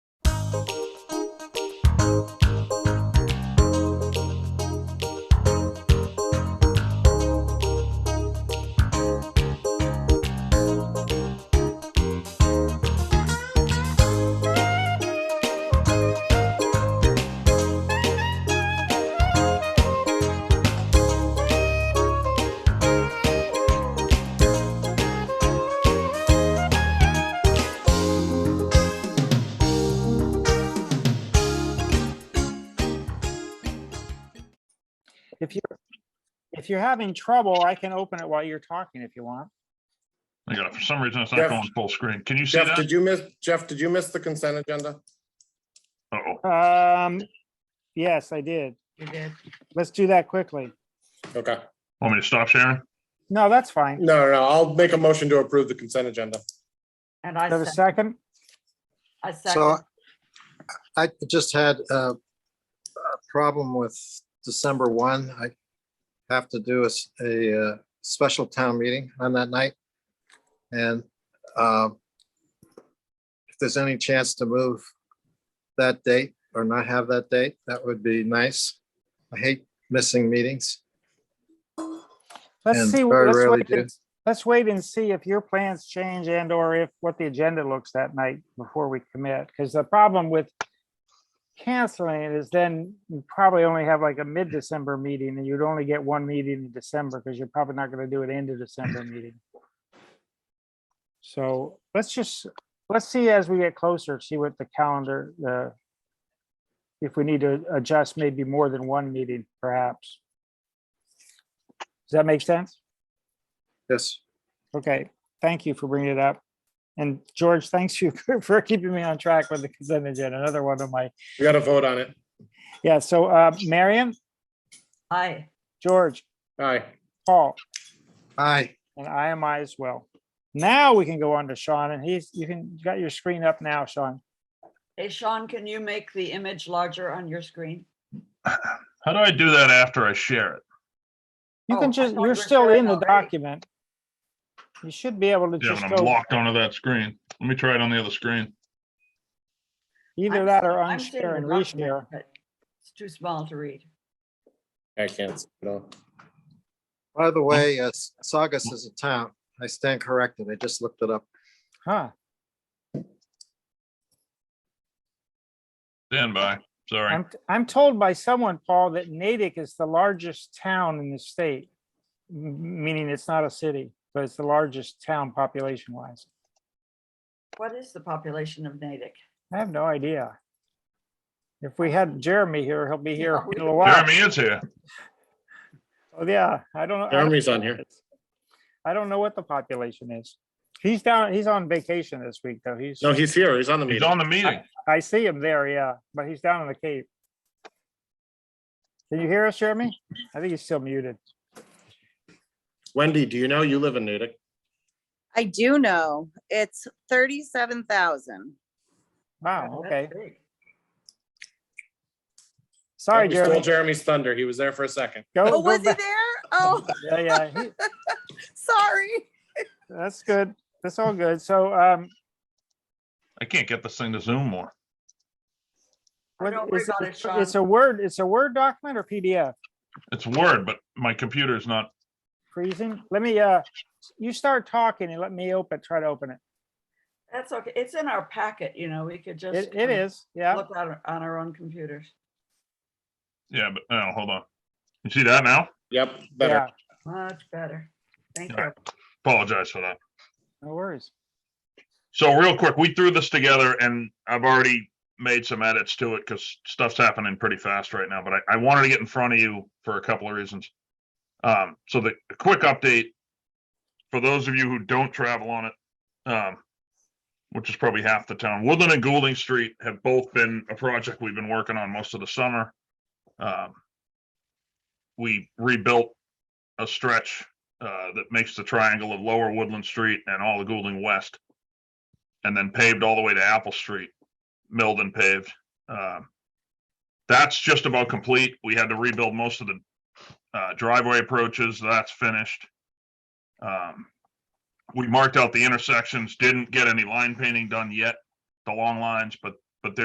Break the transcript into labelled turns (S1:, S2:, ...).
S1: If you're, if you're having trouble, I can open it while you're talking if you want.
S2: I got it. For some reason, it's
S3: Jeff-
S2: not going full screen. Can you see
S3: Jeff,
S2: that?
S3: did you miss, Jeff, did you miss the consent agenda?
S2: Uh-oh.
S1: Um, yes, I did.
S4: You did.
S1: Let's do that quickly.
S3: Okay.
S2: Want me to stop sharing?
S1: No, that's fine.
S3: No, no, no, I'll make a motion to approve the consent agenda.
S4: And
S1: Do I Have
S4: I
S1: a second?
S4: second, I
S5: So
S4: second,
S5: I just had uh, a problem with December 1. I have to do a, s- a, uh, special town meeting on that night. And um, if there's any chance to move that date or not have that date, that would be nice. I hate missing meetings.
S1: Let's
S5: and
S1: see,
S5: very
S1: let's
S5: rarely
S1: wait, and- let's wait and see if your plans change and or if what the agenda looks that night before we commit. Because the problem with canceling it is then you probably only have like a mid-December meeting and you'd only get one meeting in December because you're probably not going to do an end of December meeting. So let's just, let's see as we get closer, see what the calendar, uh, if we need to adjust maybe more than one meeting perhaps. Does that make sense?
S5: Yes,
S1: Okay, thank you for bringing it up. And George, thanks you for keeping me on track with the consent agenda, another one of my,
S3: We got to vote on it.
S1: yeah, so uh, Marion,
S4: aye.
S1: George,
S3: Aye.
S1: Paul,
S5: aye.
S1: and I am I as well. Now we can go on to Sean and he's, you can, you got your screen up now, Sean.
S4: Hey, Sean, can you make the image larger on your screen?
S2: How do I do that after I share it?
S1: You
S4: Oh, I
S1: can just,
S4: thought you
S1: you're
S4: were
S1: still
S4: sharing
S1: in the
S4: already.
S1: document. You should be able to
S2: Yeah,
S1: just
S2: when I'm
S1: go
S2: locked onto that screen. Let me try it on the other screen.
S1: either
S4: I'm
S1: that or
S4: seeing- I'm seeing
S1: unshare
S4: the
S1: and
S4: document,
S1: reshare.
S4: but It's too small to read.
S3: I can't, see it all.
S5: By the way, uh, Saugus is a town. I stand corrected. I just looked it up.
S1: Huh,
S2: Stand by. Sorry.
S1: I'm, I'm told by someone, Paul, that Natick is the largest town in the state. m- Meaning it's not a city, but it's the largest town population wise.
S4: What is the population of Natick?
S1: I have no idea. If we had Jeremy here, he'll be here
S4: Yeah, we-
S1: in a while.
S2: Jeremy is here.
S1: Oh, yeah, I don't know. I don't
S3: Jeremy's
S1: know
S3: on
S1: what
S3: here.
S1: it is. I don't know what the population is. He's down, he's on vacation this week though. He's,
S3: No, he's here. He's on the
S2: He's
S3: meeting.
S2: on the meeting.
S1: I see him there, yeah, but he's down in the Cape. Can you hear us, Jeremy? I think he's still muted.
S3: Wendy, do you know you live in Natick?
S6: I do know. It's thirty-seven thousand.
S1: Wow,
S4: Yeah,
S1: okay.
S4: that's big.
S1: Sorry,
S3: We stole
S1: Jeremy.
S3: Jeremy's thunder. He was there for a second.
S6: Oh,
S1: Go, go
S6: was he there?
S1: back.
S6: Oh,
S1: Yeah, yeah, he-
S6: sorry.
S1: that's good. That's all good. So, um,
S2: I can't get this thing to zoom more.
S4: Oh,
S1: what-
S4: Don't worry
S1: it's a-
S4: about it, Sean.
S1: it's a Word, it's a Word document or PDF?
S2: It's Word, but my computer is not.
S1: freezing. Let me, uh, you start talking and let me open, try to open it.
S4: That's okay. It's in our packet, you know, we could just.
S1: It, it
S4: um,
S1: is, yeah.
S4: Look on, our- on our own computers.
S2: Yeah, but no, hold on. You see that now?
S3: Yep,
S1: Yeah,
S3: better.
S4: Much better. Thank
S2: Yeah.
S4: you.
S2: Apologize for that.
S1: no worries.
S2: So real quick, we threw this together and I've already made some edits to it because stuff's happening pretty fast right now, but I, I wanted to get in front of you for a couple of reasons. Um, so the a quick update for those of you who don't travel on it, um, which is probably half the town, Woodland and Goulding Street have both been a project we've been working on most of the summer. Um, we rebuilt a stretch uh, that makes the triangle of Lower Woodland Street and all the Goulding West and then paved all the way to Apple Street, milled and paved. Um, that's just about complete. We had to rebuild most of the uh, driveway approaches. That's finished. Um, we marked out the intersections, didn't get any line painting done yet, the long lines, but